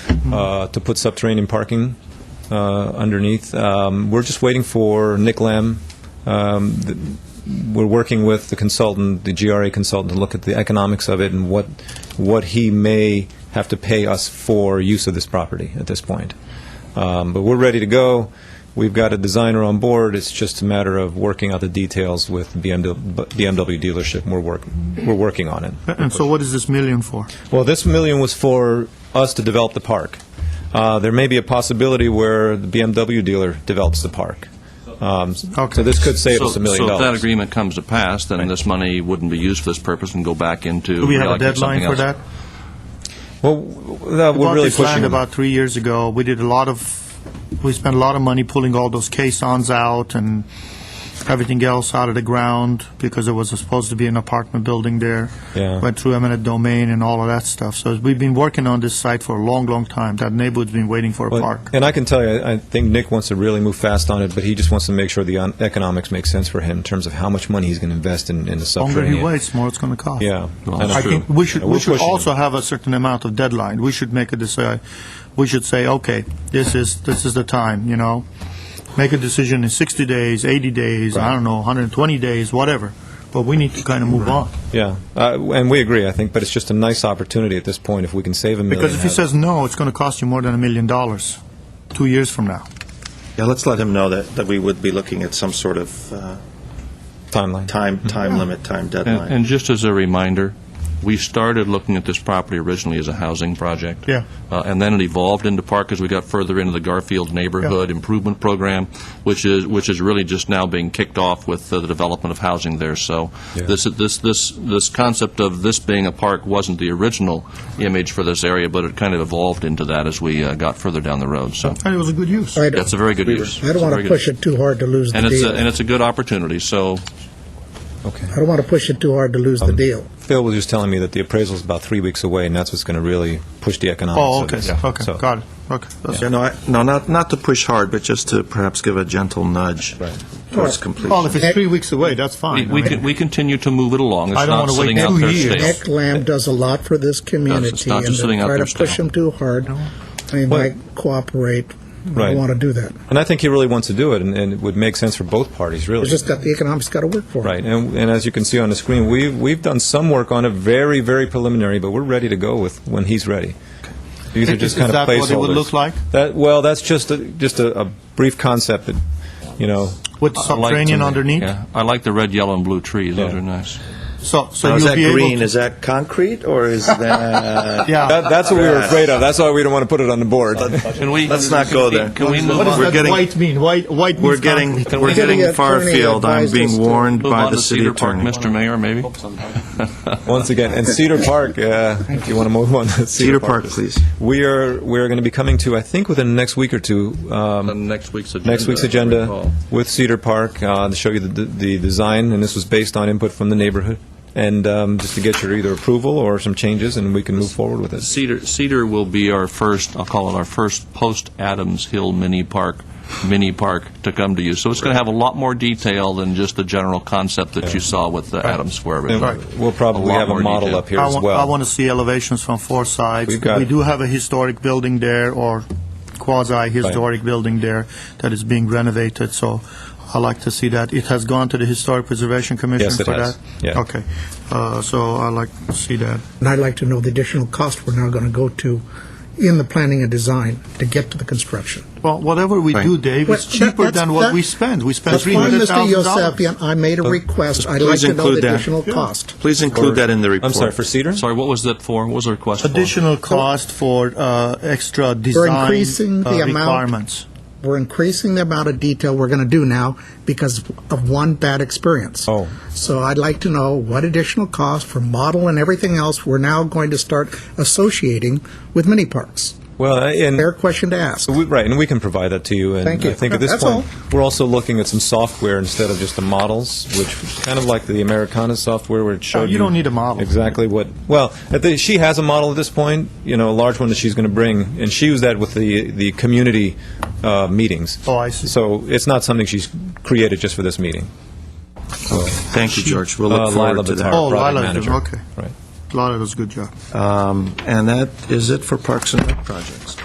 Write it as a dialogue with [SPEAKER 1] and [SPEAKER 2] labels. [SPEAKER 1] uh, to put subterranean parking uh, underneath. Um, We're just waiting for Nick Lamb. Um, th- We're working with the consultant, the GRA consultant, to look at the economics of it and what, what he may have to pay us for use of this property at this point. Um, But we're ready to go. We've got a designer on board. It's just a matter of working out the details with BMW dealership, and we're work, we're working on it.
[SPEAKER 2] And so what is this million for?
[SPEAKER 1] Well, this million was for us to develop the park. Uh, There may be a possibility where the BMW dealer develops the park. Um, So
[SPEAKER 2] Okay.
[SPEAKER 1] this could save
[SPEAKER 3] So-
[SPEAKER 1] us a million
[SPEAKER 3] So if that
[SPEAKER 1] dollars.
[SPEAKER 3] agreement comes to pass, then this money wouldn't be used for this purpose and go back into...
[SPEAKER 2] Do we have a
[SPEAKER 3] reallocating
[SPEAKER 2] deadline
[SPEAKER 3] something
[SPEAKER 2] for
[SPEAKER 3] else.
[SPEAKER 2] that?
[SPEAKER 1] Well, w- w- that- we're
[SPEAKER 2] Bought
[SPEAKER 1] really
[SPEAKER 2] this land
[SPEAKER 1] pushing.
[SPEAKER 2] about three years ago. We did a lot of, we spent a lot of money pulling all those caissons out and everything else out of the ground because it was supposed to be an apartment building there.
[SPEAKER 1] Yeah.
[SPEAKER 2] Went through eminent domain and all of that stuff. So we've been working on this site for a long, long time. That neighborhood's been waiting for a
[SPEAKER 1] Well,
[SPEAKER 2] park.
[SPEAKER 1] And I can tell you, I I think Nick wants to really move fast on it, but he just wants to make sure the on- economics make sense for him in terms of how much money he's going to invest in in the
[SPEAKER 2] Longer
[SPEAKER 1] subterranean.
[SPEAKER 2] he waits, more it's going to cost.
[SPEAKER 1] Yeah.
[SPEAKER 3] Well,
[SPEAKER 1] And
[SPEAKER 3] that's
[SPEAKER 2] I
[SPEAKER 1] I-
[SPEAKER 3] true.
[SPEAKER 2] think we should,
[SPEAKER 1] Yeah, we're
[SPEAKER 2] we should
[SPEAKER 1] pushing it.
[SPEAKER 2] also have a certain amount of deadline. We should make a decide, we should say, okay, this is, this is the time, you know? Make a decision in 60 days, 80 days, I don't know, 120 days, whatever, but we need to kind of move on.
[SPEAKER 1] Yeah, Uh, w- and we agree, I think, but it's just a nice opportunity at this point if we can save a million.
[SPEAKER 2] Because if he
[SPEAKER 1] out of it.
[SPEAKER 2] says no, it's going to cost you more than a million dollars, two years from now.
[SPEAKER 4] Yeah, let's let him know that, that we would be looking at some sort of uh,
[SPEAKER 1] Timeline.
[SPEAKER 4] time, time limit, time
[SPEAKER 3] And
[SPEAKER 4] deadline.
[SPEAKER 3] and just as a reminder, we started looking at this property originally as a housing project.
[SPEAKER 2] Yeah.
[SPEAKER 3] Uh, And then it evolved into park as we got further into the Garfield Neighborhood Improvement Program, which is, which is really just now being kicked off with uh, the development of housing there. So
[SPEAKER 1] Yeah.
[SPEAKER 3] this, this, this, this concept of this being a park wasn't the original image for this area, but it kind of evolved into that as we uh, got further down the road, so.
[SPEAKER 2] And it was a good use.
[SPEAKER 5] I
[SPEAKER 3] That's
[SPEAKER 5] don't,
[SPEAKER 3] a very good use.
[SPEAKER 5] I don't want to push it too hard to lose the
[SPEAKER 3] And it's, a- and
[SPEAKER 5] deal.
[SPEAKER 3] it's a good opportunity, so
[SPEAKER 1] Okay.
[SPEAKER 5] I don't want to push it too hard to lose
[SPEAKER 3] Um,
[SPEAKER 5] the deal.
[SPEAKER 1] Um, Phil was just telling me that the appraisal is about three weeks away, and that's what's going to really push the economics.
[SPEAKER 2] Oh,
[SPEAKER 1] of
[SPEAKER 2] okay,
[SPEAKER 1] it. So-
[SPEAKER 2] okay, got it, okay. that's
[SPEAKER 4] Yeah,
[SPEAKER 2] it.
[SPEAKER 4] no, I- no, not, not to push hard, but just to perhaps give a gentle nudge
[SPEAKER 1] Right.
[SPEAKER 2] Well, if
[SPEAKER 4] towards completion.
[SPEAKER 2] it's three weeks away, that's
[SPEAKER 3] we,
[SPEAKER 2] fine. I
[SPEAKER 3] we
[SPEAKER 2] mean-
[SPEAKER 3] con- we continue to move it along.
[SPEAKER 2] I
[SPEAKER 3] It's
[SPEAKER 2] don't
[SPEAKER 3] not
[SPEAKER 2] wanna wait
[SPEAKER 3] sitting out
[SPEAKER 2] two
[SPEAKER 3] there
[SPEAKER 2] years.
[SPEAKER 3] stale.
[SPEAKER 5] Nick Lamb does a lot for this community,
[SPEAKER 3] not
[SPEAKER 5] and
[SPEAKER 3] just
[SPEAKER 5] to
[SPEAKER 3] sitting out
[SPEAKER 5] try
[SPEAKER 3] there
[SPEAKER 5] to push
[SPEAKER 3] still.
[SPEAKER 5] him too hard, they might cooperate. I
[SPEAKER 1] Right.
[SPEAKER 5] don't want to do that.
[SPEAKER 1] And I think he really wants to do it, and, and it would make sense for both parties, really.
[SPEAKER 5] It's just that the economics got to work for it.
[SPEAKER 1] right. And, and as you can see on the screen, we've, we've done some work on it, very, very preliminary, but we're ready to go with when he's ready. These are
[SPEAKER 2] Is-
[SPEAKER 1] just
[SPEAKER 2] is
[SPEAKER 1] kind of
[SPEAKER 2] that what it
[SPEAKER 1] placeholders.
[SPEAKER 2] would look like?
[SPEAKER 1] That, well, that's just a, just a, a brief concept that, you know,
[SPEAKER 2] With
[SPEAKER 3] I like
[SPEAKER 2] subterranean
[SPEAKER 3] to-
[SPEAKER 2] underneath?
[SPEAKER 3] Yeah, I like the red, yellow, and blue trees. Those
[SPEAKER 1] Yeah.
[SPEAKER 3] are nice.
[SPEAKER 2] So, so
[SPEAKER 4] Now, is
[SPEAKER 2] you'll
[SPEAKER 4] that
[SPEAKER 2] be able to...
[SPEAKER 4] green, is that concrete, or is that?
[SPEAKER 2] Yeah.
[SPEAKER 1] that, that's what we were afraid of. That's why we don't want to put it on the board.
[SPEAKER 3] Can we?
[SPEAKER 4] Let's not go there.
[SPEAKER 3] Can we
[SPEAKER 2] What
[SPEAKER 3] move
[SPEAKER 2] does
[SPEAKER 4] We're
[SPEAKER 3] on?
[SPEAKER 2] that
[SPEAKER 4] getting-
[SPEAKER 2] white mean? White, white means
[SPEAKER 4] We're getting,
[SPEAKER 2] concrete.
[SPEAKER 4] we're getting
[SPEAKER 5] Attorney
[SPEAKER 4] far afield. I'm
[SPEAKER 5] advised us
[SPEAKER 4] being
[SPEAKER 5] to
[SPEAKER 4] warned
[SPEAKER 3] Move on
[SPEAKER 4] by the
[SPEAKER 3] to
[SPEAKER 4] city
[SPEAKER 3] Cedar Park,
[SPEAKER 4] attorney.
[SPEAKER 3] Mr. Mayor, maybe?
[SPEAKER 1] Once again, and Cedar Park, uh, if you want to move on to Cedar,
[SPEAKER 4] Cedar Park, please.
[SPEAKER 1] We are, we're going to be coming to, I think within the next week or two, um,
[SPEAKER 3] On next week's agenda.
[SPEAKER 1] next week's
[SPEAKER 3] if I
[SPEAKER 1] agenda
[SPEAKER 3] recall.
[SPEAKER 1] with Cedar Park uh, to show you the, the design, and this was based on input from the neighborhood, and um, just to get your either approval or some changes, and we can move forward with it.
[SPEAKER 3] Cedar, Cedar will be our first, I'll call it our first post-Adams Hill mini park, mini park to come to you. So it's going to have a lot more detail than just the general concept that you saw with the Adams Square.
[SPEAKER 1] And We'll probably
[SPEAKER 3] lot
[SPEAKER 1] have a
[SPEAKER 3] more
[SPEAKER 1] model
[SPEAKER 3] detail.
[SPEAKER 1] up here
[SPEAKER 2] I
[SPEAKER 1] as
[SPEAKER 2] want,
[SPEAKER 1] well.
[SPEAKER 2] I want to see elevations from four sides.
[SPEAKER 1] We've got-
[SPEAKER 2] We do have a historic building there, or quasi-historic building there, that is being renovated, so I like to see that. It has gone to the Historic Preservation Commission
[SPEAKER 1] Yes, it
[SPEAKER 2] for
[SPEAKER 1] has.
[SPEAKER 2] that?
[SPEAKER 1] Yeah.
[SPEAKER 2] Okay, Uh, so I like to see that.
[SPEAKER 5] And I'd like to know the additional cost we're now going to go to in the planning and design to get to the construction.
[SPEAKER 2] Well, whatever we do, Dave,
[SPEAKER 5] Well,
[SPEAKER 2] it's cheaper
[SPEAKER 5] that-
[SPEAKER 2] than
[SPEAKER 5] that's-
[SPEAKER 2] what
[SPEAKER 5] that-
[SPEAKER 2] we spend. We spend
[SPEAKER 5] That's fine, Mr.
[SPEAKER 2] $300,000.
[SPEAKER 5] Yosefian, I made a request. I'd like
[SPEAKER 4] Please
[SPEAKER 5] to know
[SPEAKER 4] include
[SPEAKER 5] the
[SPEAKER 4] that.
[SPEAKER 5] additional
[SPEAKER 4] Yeah.
[SPEAKER 5] cost.
[SPEAKER 4] Please include that in the report.
[SPEAKER 1] I'm sorry, for Cedar?
[SPEAKER 3] Sorry, what was that for? What was the request for?
[SPEAKER 2] Additional cost for uh, extra design
[SPEAKER 5] increasing the
[SPEAKER 2] uh,
[SPEAKER 5] amount.
[SPEAKER 2] requirements.
[SPEAKER 5] We're increasing the amount of detail we're going to do now because of one bad experience.
[SPEAKER 1] Oh.
[SPEAKER 5] So I'd like to know what additional cost for model and everything else we're now going to start associating with mini parks.
[SPEAKER 1] well, and
[SPEAKER 5] Fair question to ask.
[SPEAKER 1] we, right, and we can provide that to you. And
[SPEAKER 5] Thank you.
[SPEAKER 1] I think at this
[SPEAKER 5] That's
[SPEAKER 1] point,
[SPEAKER 5] all.
[SPEAKER 1] we're also looking at some software instead of just the models, which is kind of like the Americana software where it showed
[SPEAKER 2] Oh, you don't need a model.
[SPEAKER 1] exactly what. Well, at the, she has a model at this point, you know, a large one that she's going to bring, and she used that with the the community uh, meetings.
[SPEAKER 2] Oh, I see.
[SPEAKER 1] So it's not something she's created just for this meeting. So,
[SPEAKER 4] Thank you, George. We'll
[SPEAKER 1] uh,
[SPEAKER 4] look
[SPEAKER 1] Lila
[SPEAKER 4] forward to
[SPEAKER 1] Bitar,
[SPEAKER 4] that.
[SPEAKER 2] Oh,
[SPEAKER 1] product
[SPEAKER 2] Lila,
[SPEAKER 1] manager.
[SPEAKER 2] okay.
[SPEAKER 1] Right.
[SPEAKER 2] Lana does a good job.
[SPEAKER 4] Um, And that is it for Parks and Rec projects.